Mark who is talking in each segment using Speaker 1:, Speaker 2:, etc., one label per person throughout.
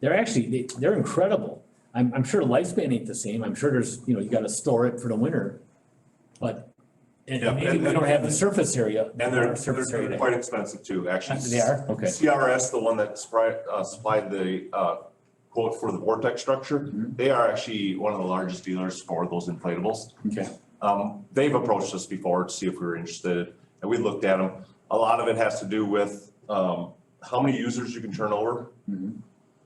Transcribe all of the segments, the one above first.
Speaker 1: They're actually, they, they're incredible. I'm, I'm sure lifespan ain't the same. I'm sure there's, you know, you gotta store it for the winter. But, and
Speaker 2: Yeah,
Speaker 1: and maybe
Speaker 2: and-
Speaker 1: we don't have the
Speaker 2: and-
Speaker 1: surface area.
Speaker 2: And they're,
Speaker 1: Surface
Speaker 2: they're
Speaker 1: area.
Speaker 2: quite expensive too, actually.
Speaker 1: They are, okay.
Speaker 2: CRS, the one that supplied, uh, supplied the, uh, quote for the vortex structure,
Speaker 1: Mhm.
Speaker 2: they are actually one of the largest dealers for those inflatables.
Speaker 1: Okay.
Speaker 2: Um, they've approached us before to see if we were interested, and we looked at them. A lot of it has to do with, um, how many users you can turn over.
Speaker 1: Mhm.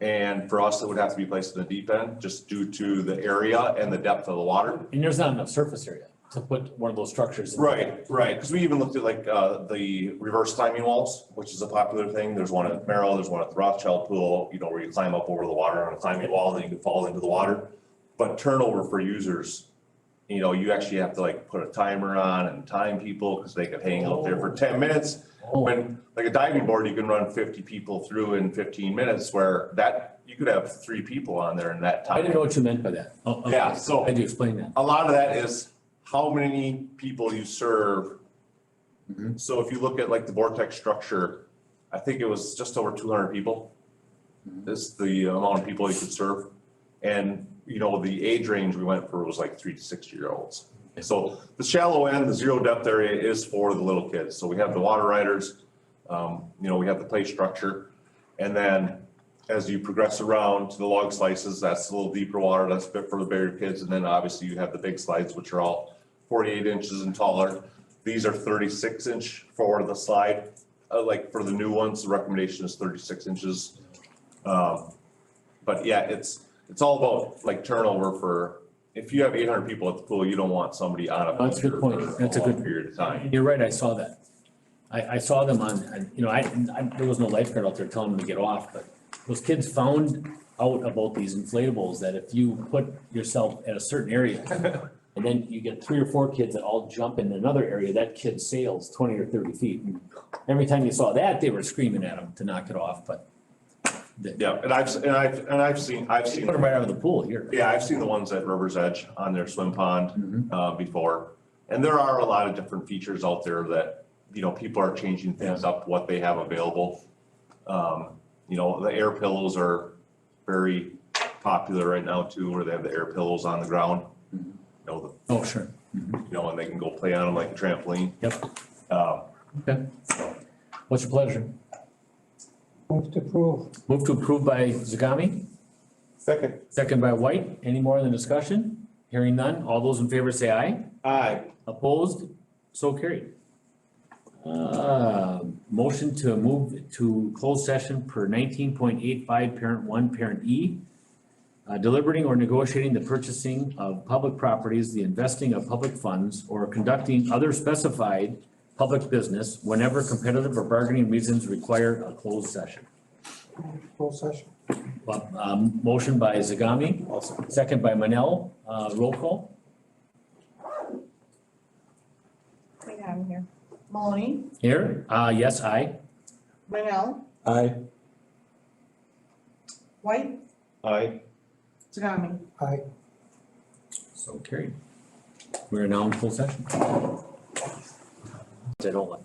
Speaker 2: And for us, it would have to be placed in the deep end, just due to the area and the depth of the water.
Speaker 1: And there's not enough surface area to put one of those structures. in.
Speaker 2: Right, right, because we even looked at like, uh, the reverse timing walls, which is a popular thing, there's one at Merrill, there's one at the Rothschild Pool, you know, where you climb up over the water on a climbing wall, then you can fall into the water. But turnover for users, you know, you actually have to like put a timer on and time people, because they could hang out there for ten minutes.
Speaker 1: Oh,
Speaker 2: When, like a diving board, you can run fifty people through in fifteen minutes, where that, you could have three people on there in that time.
Speaker 1: I didn't know what you meant by that. Oh, okay.
Speaker 2: Yeah, so-
Speaker 1: I do explain that.
Speaker 2: A lot of that is how many people you serve.
Speaker 1: Mhm.
Speaker 2: So if you look at like the vortex structure, I think it was just over two hundred people.
Speaker 1: Mhm.
Speaker 2: This, the amount of people you could serve. And, you know, the age range we went for was like three to six year olds. So the shallow end, the zero depth area is for the little kids. So we have the water riders, um, you know, we have the play structure. And then as you progress around to the log slices, that's a little deeper water, that's fit for the bigger kids, and then obviously you have the big slides, which are all forty-eight inches and taller. These are thirty-six inch for the slide, uh, like for the new ones, the recommendation is thirty-six inches. Um, but yeah, it's, it's all about like turnover for, if you have eight hundred people at the pool, you don't want somebody on a.
Speaker 1: That's a good
Speaker 2: bunker
Speaker 1: point.
Speaker 2: for
Speaker 1: That's a
Speaker 2: long
Speaker 1: good-
Speaker 2: Period of time.
Speaker 1: You're right, I saw that. I, I saw them on, on- you know, I, I, there was no lifeguard out there telling them to get off, but those kids found out about these inflatables that if you put yourself at a certain area, and then you get three or four kids that all jump in another area, that kid sails twenty or thirty feet. Every time you saw that, they were screaming at him to knock it off, but they they
Speaker 2: Yeah, and I've, and I've, and I've seen, I've seen.
Speaker 1: put him right out of the pool here.
Speaker 2: Yeah, I've seen the ones at River's Edge on their swim pond
Speaker 1: Mhm.
Speaker 2: uh, before. And there are a lot of different features out there that, you know, people are changing things up, what they have available. Um, You know, the air pillows are very popular right now too, where they have the air pillows on the ground.
Speaker 1: Mhm.
Speaker 2: You know,
Speaker 1: Oh, sure.
Speaker 2: the- you know, and they can go play on them like a trampoline.
Speaker 1: Yep.
Speaker 2: Um,
Speaker 1: Okay. What's your pleasure?
Speaker 3: Move to approve.
Speaker 1: Move to approve by Zagami?
Speaker 4: Second.
Speaker 1: Second by White. Any more in the discussion? Hearing none. All those in favor say aye.
Speaker 4: Aye.
Speaker 1: Opposed? So carried. Uh, motion to move to closed session per nineteen point eight five, parent one, parent E. Uh, deliberating or negotiating the purchasing of public properties, the investing of public funds, or conducting other specified public business whenever competitive or bargaining reasons require a closed session.
Speaker 3: Closed session.
Speaker 1: Well, Um, motion by Zagami, second by Manel, uh, roll call.
Speaker 5: Wait, I'm here. Maloney,
Speaker 1: Here, uh, yes, I.
Speaker 5: Manel,
Speaker 4: Aye.
Speaker 5: White,
Speaker 4: Aye.
Speaker 5: Tagami.
Speaker 3: Aye.
Speaker 1: So carried. We're now in full session. I don't like.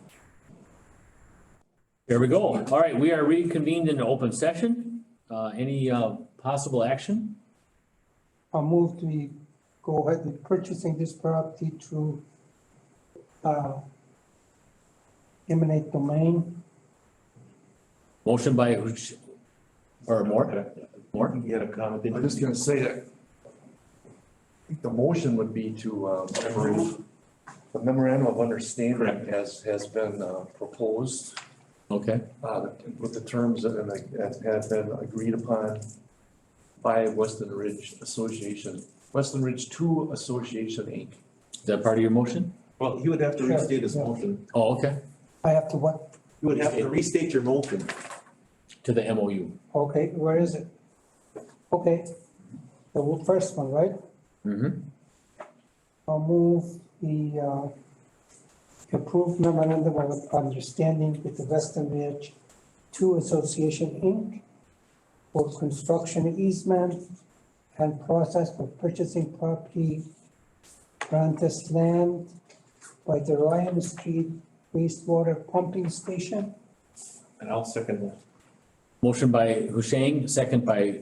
Speaker 1: There we go. All right, we are reconvened in open session. Uh, any, uh, possible action?
Speaker 3: I'll move to go ahead with purchasing this property through uh, eminent domain.
Speaker 1: Motion by, Hush- or more, more?
Speaker 6: You had a comment. I was just gonna say that. I think the motion would be to uh, approve the memorandum of understanding has, has been uh, proposed
Speaker 1: Okay,
Speaker 6: uh, with the terms that that have been agreed upon by Weston Ridge Association, Weston Ridge Two Association Inc.
Speaker 1: is that part of your motion?
Speaker 4: Well, he would have to
Speaker 3: Sure.
Speaker 4: restate his motion.
Speaker 1: Oh, okay,
Speaker 3: I have to what?
Speaker 4: You would have to restate your motion.
Speaker 1: to the MOU.
Speaker 3: Okay, where is it? Okay, the first one, right?
Speaker 1: Mm-hmm.
Speaker 3: I'll move the uh, approved memorandum of understanding with the Western Ridge Two Association, Inc. for construction easement and process for purchasing property, Brantus land by the Ryan Street wastewater pumping station.
Speaker 4: And I'll second that.
Speaker 1: Motion by Husheng, second by